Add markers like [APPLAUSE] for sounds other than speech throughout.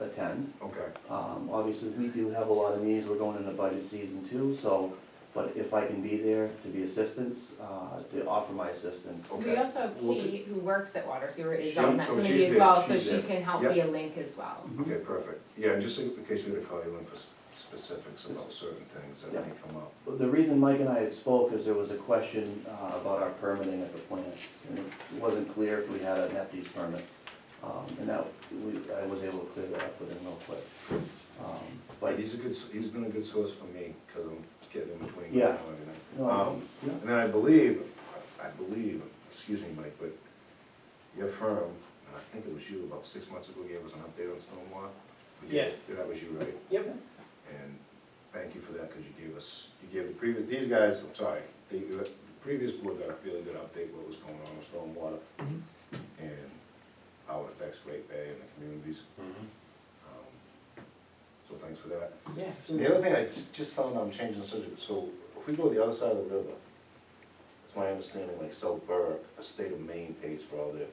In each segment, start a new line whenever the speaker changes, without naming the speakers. attend.
Okay,
Um, obviously, we do have a lot of meetings, we're going into budget season too, so, but if I can be there to be assistance, uh, to offer my assistance.
okay.
We also have
We'll do-
Kate, who works at Water Sewer, is
She-
on that
oh,
committee
she's
as
there,
well, so
she's
she
there.
can help
Yep.
be a link as well.
Okay, perfect. Yeah, and just in case we had to call you in for s- specifics about certain things that may come up.
But The reason Mike and I had spoke is there was a question uh, about our permitting at the plant. And it wasn't clear if we had an EPD's permit. Um, And that, we, I was able to clear that up with him real quick. Um,
But
But,
he's a good, s- he's been a good source for me, because I'm getting in between
Yeah.
now and everything.
No,
Um,
yeah.
And then I believe, I believe, excuse me, Mike, but your firm, and I think it was you, about six months ago gave us an update on stormwater. You did-
Yes.
That was you, right?
Yep.
And thank you for that, because you gave us, you gave the previous, these guys, I'm sorry, the, the previous board got a really good update what was going on with stormwater and how it affects Great Bay and the communities. Um, So thanks for that.
Yeah.
The other thing I just- just found, I'm changing the subject, so if we go the other side of the river, it's my understanding, like South Burke, the state of Maine pays for all their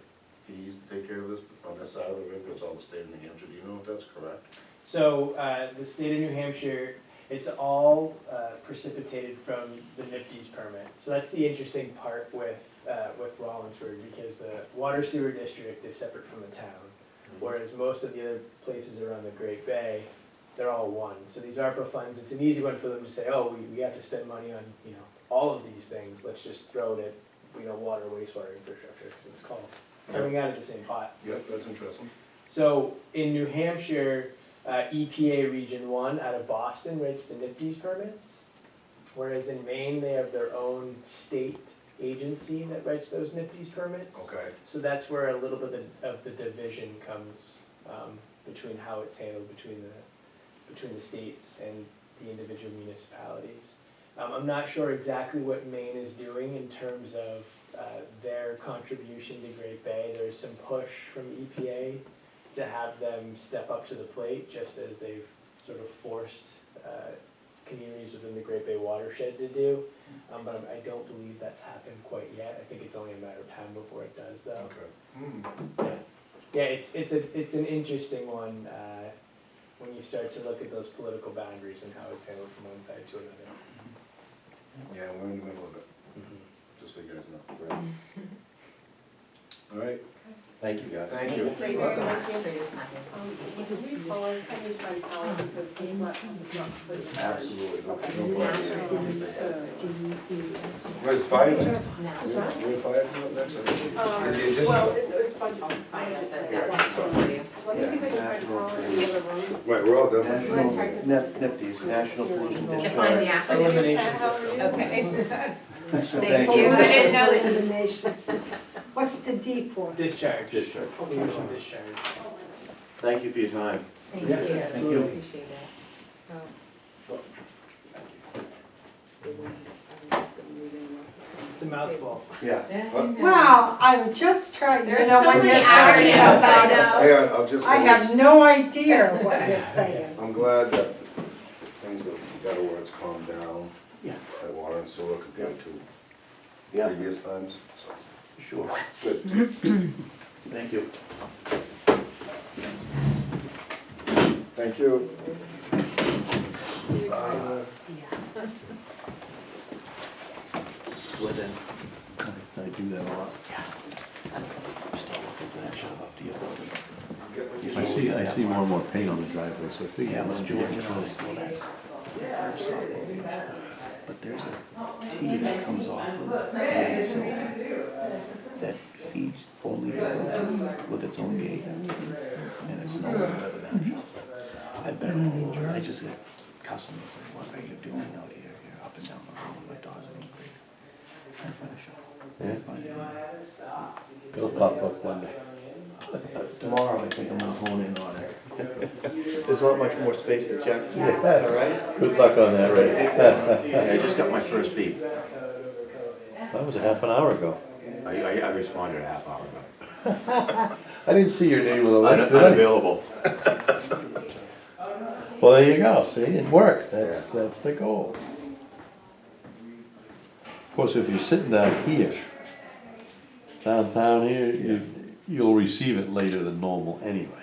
fees to take care of this, on this side of the river, it's all the state of New Hampshire, do you know if that's correct?
So, uh, the state of New Hampshire, it's all, uh, precipitated from the NIPD's permit. So that's the interesting part with, uh, with Rollinsford, because the water sewer district is separate from the town.
Mm-hmm.
Whereas most of the other places around the Great Bay, they're all one. So these ARPA funds, it's an easy one for them to say, oh, we, we have to spend money on, you know, all of these things, let's just throw it at, you know, water, wastewater infrastructure, because it's called, coming out of the same pot.
Yep, that's interesting.
So in New Hampshire, uh, EPA Region One out of Boston rates the NIPD's permits, whereas in Maine, they have their own state agency that writes those NIPD's permits.
Okay,
So that's where a little bit of the- of the division comes, um, between how it's handled between the, between the states and the individual municipalities. Um, I'm not sure exactly what Maine is doing in terms of, uh, their contribution to Great Bay. There's some push from EPA to have them step up to the plate, just as they've sort of forced, uh, communities within the Great Bay watershed to do. Um, but I don't believe that's happened quite yet. I think it's only a matter of time before it does, though.
okay. Hmm,
Yeah, it's, it's a, it's an interesting one, uh, when you start to look at those political boundaries and how it's handled from one side to another.
yeah, we're in the middle of it, just so you guys know. [LAUGHS] All right,
Thank you, guys.
thank you.
Thank you very much for your time.
Um, Can we pause, can we try to call it because this is not.
Absolutely, no-
Okay.
no problem.
So,
Where's fire next?
Now.
Where- where fire come up next? I guess
uh,
it's-
Um,
is the agenda-
Well, it- it's budget.
I'll find out that,
Yeah.
that one for you.
Let me see if I can find Colin in the other room.
Right, we're all done.
National, Nep- NEPTI's, National Pollution Control.
Define the acronym.
Elimination
How are you?
system.
Okay. [LAUGHS]
Thank
Thank you, I didn't know that.
Elimination system. What's the D for?
Discharge.
Discharge.
Pollution discharge.
Thank you for your time.
Thank you.
Yeah, thank you.
Appreciate it. Oh.
It's a
[LAUGHS]
mouthful. [LAUGHS]
Yeah.
Wow, I'm just trying to
There's
know
so
what
many
you're talking
acronyms, I
about.
know.
Hey, I- I'll just
I
say
have
this,
no idea what you're saying.
I'm glad that things have, better words calmed down
Yeah.
at water and sewer compared to
Yeah.
previous times, so
Sure,
it's good.
thank you.
Thank you.
Within. I do that a lot. Just not looking for that shot off the other
I see, I see one more paint on the driveway, so I think.
Yeah, it was
might be
George and
close.
I, well, that's. that's our location. But there's a T that comes off of the axle that feeds only the road with its own gate. And it's no longer the national. I've been all over, I just get customers, like, what are you doing out here, you're up and down the road, my dog's in the creek. Can't find a shop. Can't find it.
It'll pop up one day.
Tomorrow, I think I'm gonna hone in on it.
There's not much more space to check, all right?
Good luck on that, Ray.
I just got my first beep.
That was a half an hour ago.
I, I, I responded a half hour ago.
I didn't see your name on the list,
Un-
did I?
Unavailable.
Well, there you go, see, it worked, that's, that's the goal. Of course, if you're sitting down here, downtown here, you, you'll receive it later than normal anyway.